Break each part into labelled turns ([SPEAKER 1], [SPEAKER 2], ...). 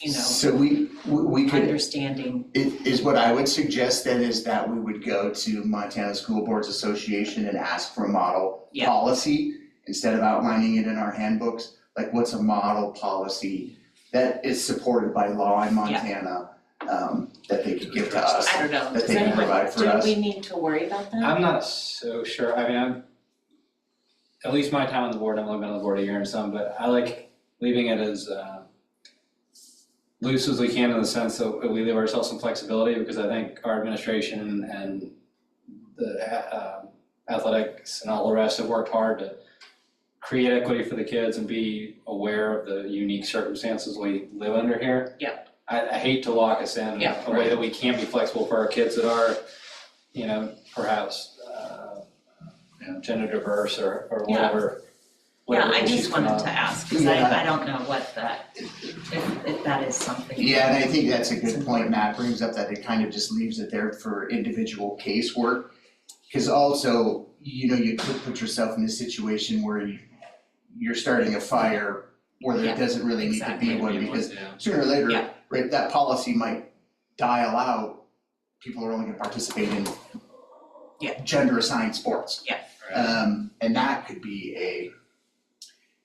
[SPEAKER 1] you know,
[SPEAKER 2] So we, we we could,
[SPEAKER 1] understanding.
[SPEAKER 2] it is what I would suggest then is that we would go to Montana School Boards Association and ask for a model
[SPEAKER 1] Yeah.
[SPEAKER 2] policy instead of outlining it in our handbooks, like what's a model policy that is supported by law in Montana um that they could give to us,
[SPEAKER 1] I don't know,
[SPEAKER 2] that
[SPEAKER 1] does
[SPEAKER 2] they can
[SPEAKER 1] anyone,
[SPEAKER 2] provide for us.
[SPEAKER 1] do we need to worry about that?
[SPEAKER 3] I'm not so sure, I mean, I'm, at least my time on the board, I've only been on the board a year and some, but I like leaving it as, uh, loose as we can in the sense that we leave ourselves some flexibility, because I think our administration and the, uh, um, athletics and all the rest have worked hard to create equity for the kids and be aware of the unique circumstances we live under here.
[SPEAKER 1] Yeah.
[SPEAKER 3] I, I hate to lock us in in
[SPEAKER 1] Yeah,
[SPEAKER 3] a way that we can't be flexible for our kids that are, you know, perhaps, uh, you know, gender diverse or, or
[SPEAKER 1] Yeah.
[SPEAKER 3] whatever.
[SPEAKER 1] Yeah,
[SPEAKER 3] whatever
[SPEAKER 1] I
[SPEAKER 3] issues
[SPEAKER 1] just
[SPEAKER 3] come
[SPEAKER 1] wanted
[SPEAKER 3] up.
[SPEAKER 1] to ask, cause I,
[SPEAKER 2] Yeah.
[SPEAKER 1] I don't know what that, if, if that is something.
[SPEAKER 2] Yeah, and I think that's a good point Matt brings up, that it kind of just leaves it there for individual casework. Cause also, you know, you could put yourself in a situation where you, you're starting a fire where
[SPEAKER 1] Yeah,
[SPEAKER 2] there doesn't really need to be
[SPEAKER 1] exactly.
[SPEAKER 2] one, because
[SPEAKER 3] Yeah.
[SPEAKER 2] sooner or later,
[SPEAKER 1] Yeah.
[SPEAKER 2] right, that policy might dial out. People are only gonna participate in
[SPEAKER 1] Yeah.
[SPEAKER 2] gender assigned sports.
[SPEAKER 1] Yeah.
[SPEAKER 3] Right.
[SPEAKER 2] Um, and that could be a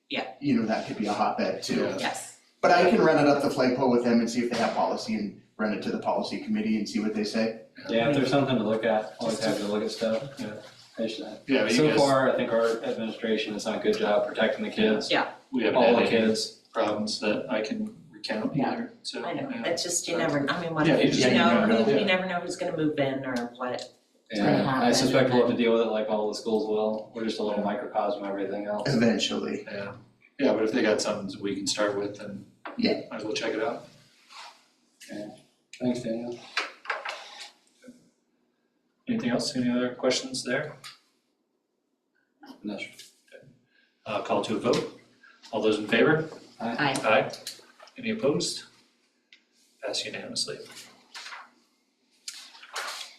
[SPEAKER 1] Yeah.
[SPEAKER 2] you know, that could be a hotbed too.
[SPEAKER 3] Yeah.
[SPEAKER 1] Yes,
[SPEAKER 2] But I can run it up the flagpole with them and see if they have policy and run it to the policy committee and see what they say.
[SPEAKER 3] Yeah, if there's something to look at, always happy to look at stuff, you know. I should-
[SPEAKER 4] Yeah, but you
[SPEAKER 3] So
[SPEAKER 4] guys,
[SPEAKER 3] far, I think our administration has done a good job protecting the kids,
[SPEAKER 4] we haven't
[SPEAKER 3] all the
[SPEAKER 4] had any
[SPEAKER 3] kids.
[SPEAKER 4] problems that I can recount
[SPEAKER 1] Yeah.
[SPEAKER 4] either, so.
[SPEAKER 1] I know,
[SPEAKER 4] yeah.
[SPEAKER 1] it's just, you never, I mean, what,
[SPEAKER 4] Yeah, you
[SPEAKER 1] you
[SPEAKER 4] just-
[SPEAKER 1] know,
[SPEAKER 4] yeah, you
[SPEAKER 1] who-
[SPEAKER 4] never
[SPEAKER 1] you never know who's gonna move in or what,
[SPEAKER 3] And I
[SPEAKER 1] Yeah.
[SPEAKER 3] suspect we'll have to deal with it like all the schools will. We're just a little microcosm of everything else.
[SPEAKER 2] Eventually,
[SPEAKER 4] Yeah, yeah, but if they got something we can start with, then
[SPEAKER 2] Yeah.
[SPEAKER 4] might as well check it out.
[SPEAKER 3] Thanks, Daniel.
[SPEAKER 4] Anything else, any other questions there?
[SPEAKER 3] No, sure.
[SPEAKER 4] Uh, call to a vote. All those in favor?
[SPEAKER 1] I,
[SPEAKER 4] Aye. Any opposed? Pass unanimously.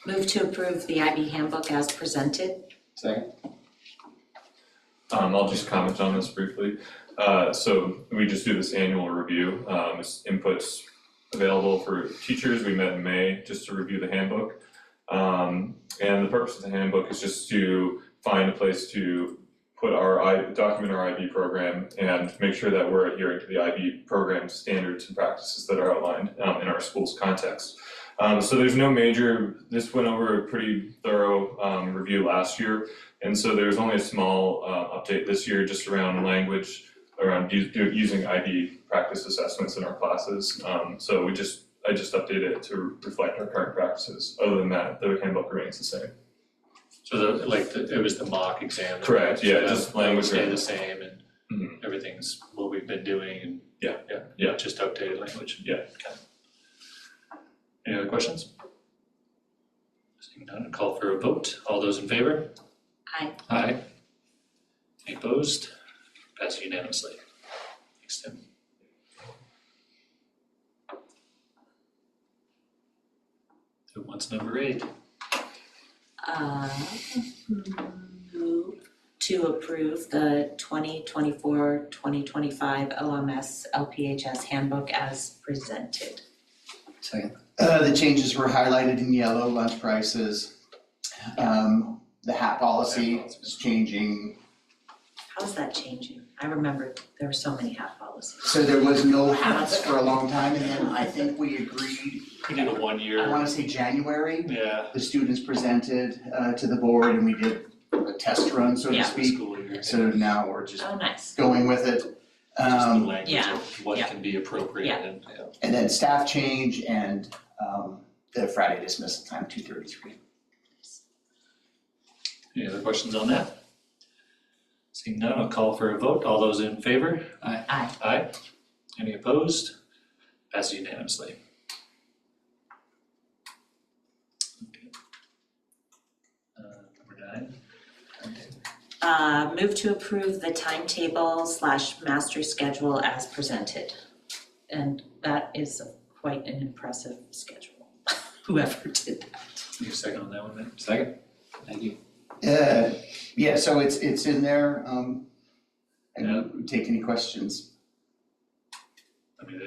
[SPEAKER 1] move to approve the IB handbook as presented,
[SPEAKER 3] Second,
[SPEAKER 5] Um, I'll just comment on this briefly. Uh, so we just do this annual review, um, it's inputs available for teachers. We met in May just to review the handbook. Um, and the purpose of the handbook is just to find a place to put our I, document our IB program and make sure that we're adhering to the IB program standards and practices that are outlined, um, in our school's context. Um, so there's no major, this went over a pretty thorough, um, review last year. And so there's only a small uh update this year just around language, around u- do- using IB practice assessments in our classes. Um so we just, I just updated it to reflect our current practices. Other than that, the handbook remains the same.
[SPEAKER 4] So the, like, the- it was the mock exam. that-
[SPEAKER 5] Correct, yeah,
[SPEAKER 4] so that-
[SPEAKER 5] just
[SPEAKER 4] that would
[SPEAKER 5] language
[SPEAKER 4] Stay the
[SPEAKER 5] or-
[SPEAKER 4] same and
[SPEAKER 5] Mhm.
[SPEAKER 4] everything's what we've been doing and.
[SPEAKER 5] Yeah,
[SPEAKER 4] Yeah.
[SPEAKER 5] yeah.
[SPEAKER 4] Just updated language.
[SPEAKER 5] Yeah.
[SPEAKER 4] Okay. Any other questions? Seeing none, call for a vote. All those in favor?
[SPEAKER 1] Aye.
[SPEAKER 4] Aye. Any opposed? Passed unanimously. Thanks, Tim. So what's number eight?
[SPEAKER 1] uh, move to approve the 2024-2025 OMS LPHS handbook as presented.
[SPEAKER 3] second.
[SPEAKER 2] uh, the changes were highlighted in yellow, lunch prices. Um, the hat policy is changing,
[SPEAKER 1] How's that changing? I remember there were so many half policies.
[SPEAKER 2] so there was no hats for a long time, and then I think we agreed,
[SPEAKER 4] We did a
[SPEAKER 2] I
[SPEAKER 4] one-year,
[SPEAKER 2] wanna say January,
[SPEAKER 4] yeah,
[SPEAKER 2] the students presented uh to the board and we did a test run, so to
[SPEAKER 1] Yeah.
[SPEAKER 2] speak.
[SPEAKER 4] school year.
[SPEAKER 2] So now we're just
[SPEAKER 1] Oh, nice.
[SPEAKER 2] going with it.
[SPEAKER 4] Just the
[SPEAKER 2] Um,
[SPEAKER 4] language
[SPEAKER 1] yeah,
[SPEAKER 4] of what
[SPEAKER 1] yeah.
[SPEAKER 4] can be appropriate and, yeah.
[SPEAKER 2] And then staff change and um the Friday dismissal time, two thirty-three.
[SPEAKER 4] Any other questions on that? Seeing none, I'll call for a vote. All those in favor?
[SPEAKER 3] Aye.
[SPEAKER 1] Aye.
[SPEAKER 4] Aye. Any opposed? Passed unanimously. Okay. Uh, Number nine.
[SPEAKER 1] Uh, move to approve the timetable slash master schedule as presented. And that is quite an impressive schedule, whoever did that.
[SPEAKER 4] Need a second on that one, Matt?
[SPEAKER 3] Second. Thank you.
[SPEAKER 2] Uh, yeah, so it's it's in there, um,
[SPEAKER 4] Yeah.
[SPEAKER 2] and take any questions.
[SPEAKER 4] I mean,